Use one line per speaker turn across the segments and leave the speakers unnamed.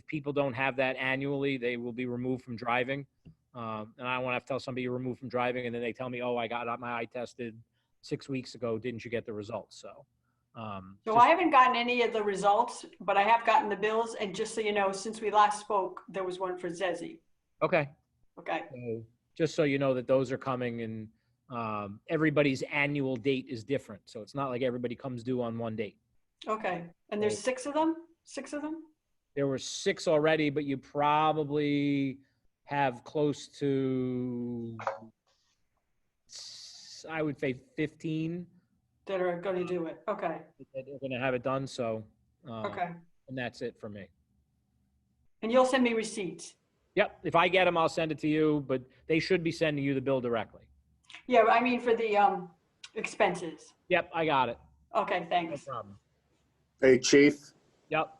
people don't have that annually, they will be removed from driving. Um, and I don't want to have to tell somebody you're removed from driving and then they tell me, oh, I got my eye tested six weeks ago. Didn't you get the results? So. um,
So
just-
I haven't gotten any of the results, but I have gotten the bills. And just so you know, since we last spoke, there was one for Zezzy.
Okay.
Okay,
So just so you know that those are coming and um, everybody's annual date is different. So it's not like everybody comes due on one date.
okay. And there's six of them? Six of them?
There were six already, but you probably have close to, s- I would say 15
That are going to do it. Okay,
that are going to have it done. So,
Uh-huh.
uh,
okay.
and that's it for me.
And you'll send me receipts?
Yep. If I get them, I'll send it to you, but they should be sending you the bill directly.
Yeah, I mean for the um expenses.
Yep. I got it.
Okay,
No
thanks.
problem.
Hey, Chief,
Yep.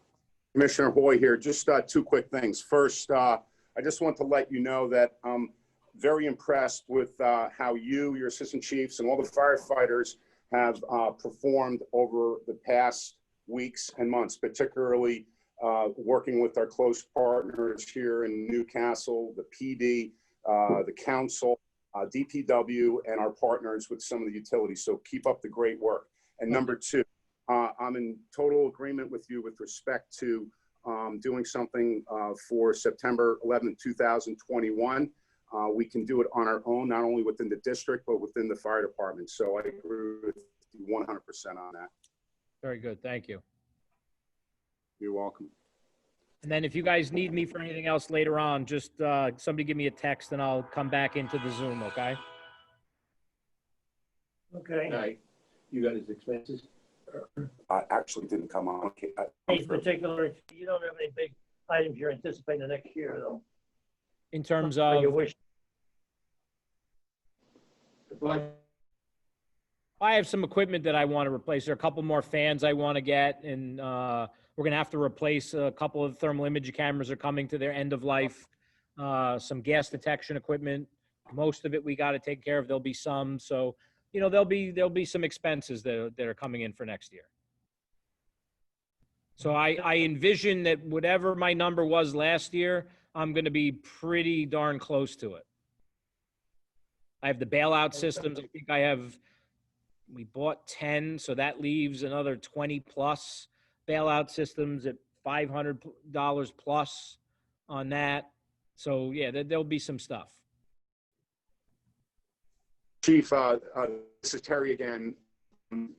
Commissioner Hoy here. Just uh, two quick things. First, uh, I just want to let you know that I'm very impressed with uh, how you, your assistant chiefs, and all the firefighters have uh, performed over the past weeks and months, particularly uh, working with our close partners here in Newcastle, the PD, uh, the council, uh, DPW, and our partners with some of the utilities. So keep up the great work. And number two, uh, I'm in total agreement with you with respect to um, doing something uh, for September 11th, 2021. Uh, We can do it on our own, not only within the district, but within the fire department. So I agree with you 100% on that.
Very good. Thank you.
You're welcome.
And then if you guys need me for anything else later on, just uh, somebody give me a text and I'll come back into the Zoom, okay?
Okay,
Right. You got his expenses?
I actually didn't come on. Okay, I-
any particular, you don't have any big items you're anticipating next year, though?
In terms
Or
of,
You wish,
Well,
I have some equipment that I want to replace. There are a couple more fans I want to get and uh, we're going to have to replace a couple of thermal image cameras are coming to their end of life. Uh, Some gas detection equipment, most of it we got to take care of. There'll be some, so, you know, there'll be, there'll be some expenses that, are- that are coming in for next year. So I, I envision that whatever my number was last year, I'm going to be pretty darn close to it. I have the bailout systems. I think I have, we bought 10, so that leaves another 20 plus bailout systems at $500 plus on that. So yeah, there, there'll be some stuff.
Chief, uh, uh, this is Terry again.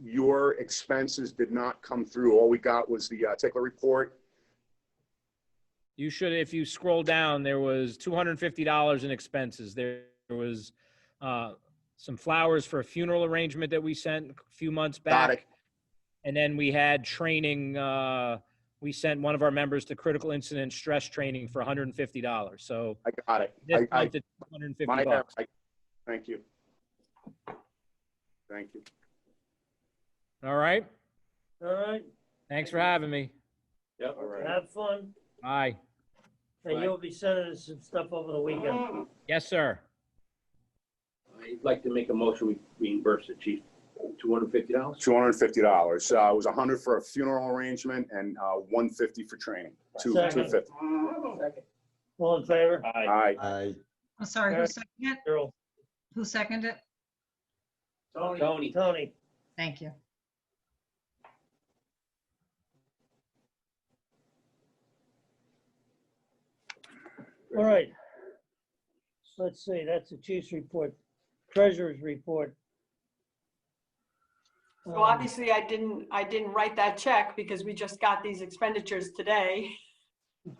Your expenses did not come through. All we got was the uh, tickler report.
You should, if you scroll down, there was $250 in expenses. There was uh, some flowers for a funeral arrangement that we sent a few months
Got
back.
it.
And then we had training, uh, we sent one of our members to critical incident stress training for $150. So
I got it.
this
I- I-
month it's 150
My error.
bucks.
I- Thank you. Thank you.
All right.
all right,
Thanks for having me.
Yeah,
All right.
have fun,
Bye.
and
Right.
you'll be sending us some stuff over the weekend.
Yes, sir.
I'd like to make a motion, we reimburse the chief $250.
Two hundred and fifty dollars. Uh, it was a hundred for a funeral arrangement and, uh, one fifty for training. Two, two
Second.
fifty.
All in favor?
All right.
I,
I'm sorry, who
Eric.
seconded it?
Carol,
Who seconded it?
Tony,
Tony,
Thank you.
all right. Let's see, that's the chief's report, treasurer's report.
So
Um,
obviously I didn't, I didn't write that check because we just got these expenditures today.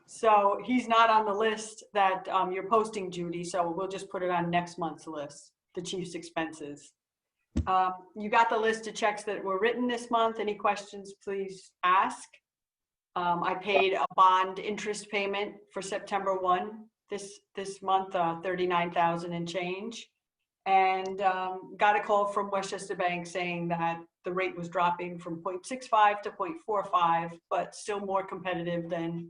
So he's not on the list that um, you're posting, Judy, so we'll just put it on next month's list, the chief's expenses. Um, You got the list of checks that were written this month. Any questions, please ask. Um, I paid a bond interest payment for September 1 this, this month, uh, 39,000 and change. And um, got a call from Westchester Bank saying that the rate was dropping from 0.65 to 0.45, but still more competitive than,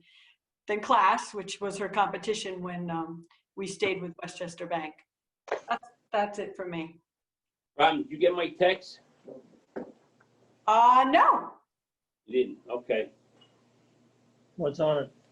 than Class, which was her competition when um, we stayed with Westchester Bank. That's- That's it for me.
Robin, did you get my text?
Uh, no,
You didn't, okay.
Um, What's on it?